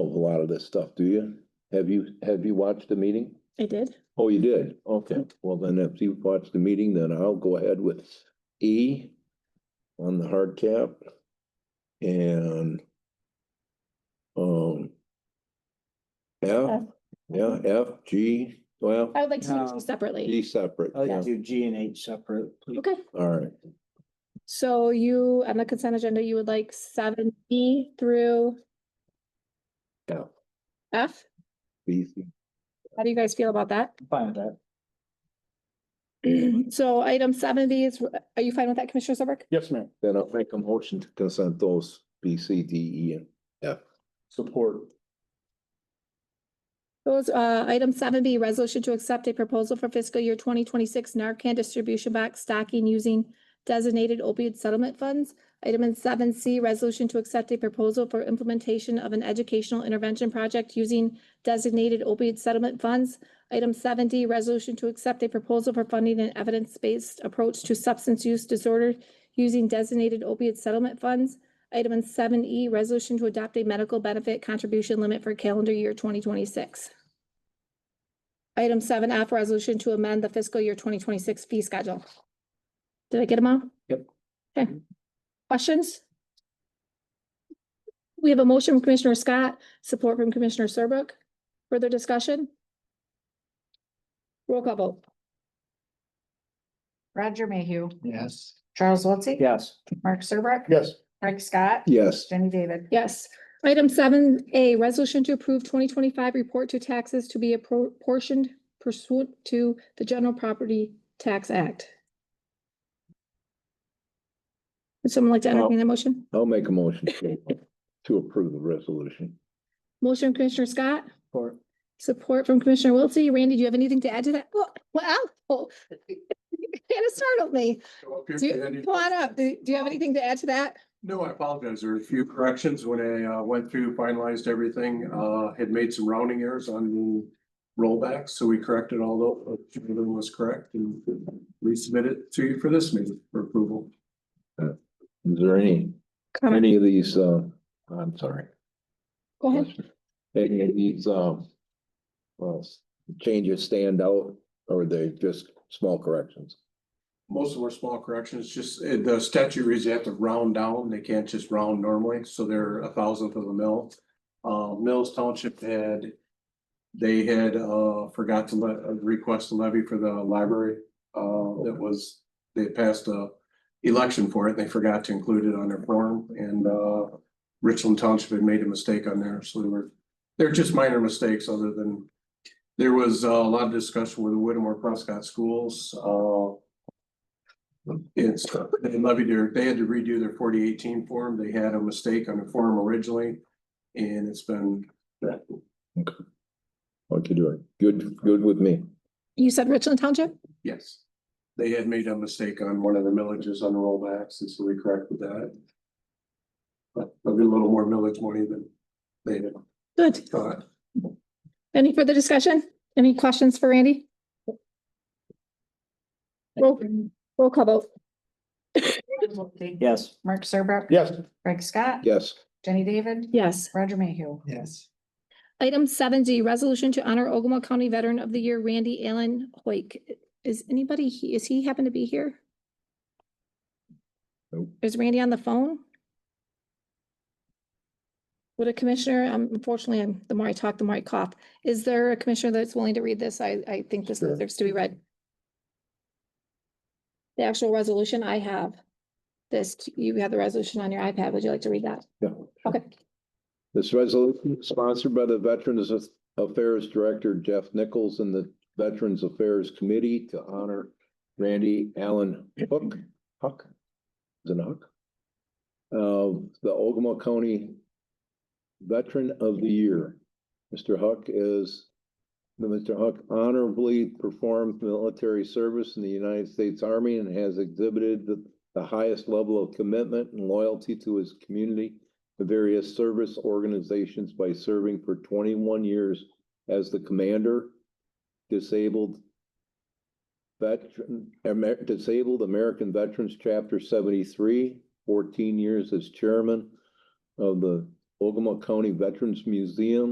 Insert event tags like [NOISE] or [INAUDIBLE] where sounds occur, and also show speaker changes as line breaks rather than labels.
lot of this stuff, do you? Have you, have you watched the meeting?
I did.
Oh, you did? Okay, well then if you watched the meeting, then I'll go ahead with E on the hard cap. And um F,
F. Oh,
yeah, F, G, well,
I would like to do
No.
them separately.
G separate.
Oh,
Oh,
I'd
yeah.
like to do G and H separate. please.
Okay,
All right,
so you, on the consent agenda, you would like seven B through
F,
F?
B, C.
How do you guys feel about that? [CLEARS THROAT]
I'm Fine with that.
So item seven B is, are you fine with that, Commissioner Serbrook?
Yes, ma'am.
Then I'll make a motion to consent those B, C, D, E, and
Support.
Those, uh, item seven B, resolution to accept a proposal for fiscal year twenty twenty-six Narcan distribution box stocking using designated opioid settlement funds. Item in seven C, resolution to accept a proposal for implementation of an educational intervention project using designated opioid settlement funds. Item seven D, resolution to accept a proposal for funding an evidence-based approach to substance use disorder using designated opioid settlement funds. Item in seven E, resolution to adopt a medical benefit contribution limit for calendar year twenty twenty-six. Item seven F, resolution to amend the fiscal year twenty twenty-six fee schedule. Did I get them all?
Yep.
Okay. Questions? We have a motion from Commissioner Scott, support from Commissioner Serbrook. Further discussion? Roll call vote.
Roger Mayhew,
Yes.
Charles Wiltie.
Yes.
Mark Serbrook.
Yes.
Craig Scott.
Yes.
Jenny David.
Yes. Item seven A, resolution to approve twenty twenty-five report to taxes to be apportioned pursuant to the General Property Tax Act. Would someone like to entertain that motion?
I'll make a motion to- uh, to approve the resolution.
Motion from Commissioner Scott,
Support.
support from Commissioner Wiltie. Randy, do you have anything to add to that? Oh, Well, wow. [LAUGHS] Kind of startled me. Do you, come on up. Do do you have anything to add to that?
No, I apologize. There were a few corrections when I uh, went through, finalized everything, uh, had made some rounding errors on the rollbacks, so we corrected all those, everything was correct and resubmitted to you for this meeting for approval.
Is there any,
Comment.
any of these, uh, I'm sorry.
Go ahead.
Any of these, um, well, changes stand out or they just small corrections?
Most of them are small corrections, just uh, the statute reads you have to round down. They can't just round normally, so they're a thousandth of a mil. Uh, Mills Township had, they had, uh, forgot to let, uh, request a levy for the library. Uh, that was, they passed a election for it. They forgot to include it on their form and, uh, Richland Township had made a mistake on there, so they were, they're just minor mistakes other than there was uh, a lot of discussion with the Whittemore Prescott Schools, uh, it's, they levied their, they had to redo their forty eighteen form. They had a mistake on the form originally. And it's been,
What you doing? Good, good with me.
You said Richland Township?
yes. They had made a mistake on one of the millages on the rollbacks, and so we corrected that. But a little more millage money than they had
Good.
thought.
Any further discussion? Any questions for Randy? Roll, roll call vote.
Charles Wiltie.
Yes.
Mark Serbrook.
Yes.
Craig Scott.
Yes,
Jenny David.
Yes.
Roger Mayhew.
Yes.
Item seven D, resolution to honor Ogama County Veteran of the Year Randy Allen Hoyk. Is anybody, he- is he happen to be here?
Nope.
Is Randy on the phone? Would a commissioner, um, unfortunately, I'm- the more I talk, the more I cough. Is there a commissioner that's willing to read this? I, I think this
Sure.
deserves to be read. The actual resolution I have. This, you have the resolution on your iPad. Would you like to read that?
yeah.
Okay.
This resolution is sponsored by the Veterans Affairs Director Jeff Nichols and the Veterans Affairs Committee to honor Randy Allen Hook, Huck, is it a Huck? Of the Ogama County Veteran of the Year. Mr. Huck is, Mr. Huck honorably performed military service in the United States Army and has exhibited the the highest level of commitment and loyalty to his community the various service organizations by serving for twenty-one years as the commander, disabled veteran, Amer- disabled American Veterans Chapter 73, 14 years as chairman of the Ogama County Veterans Museum,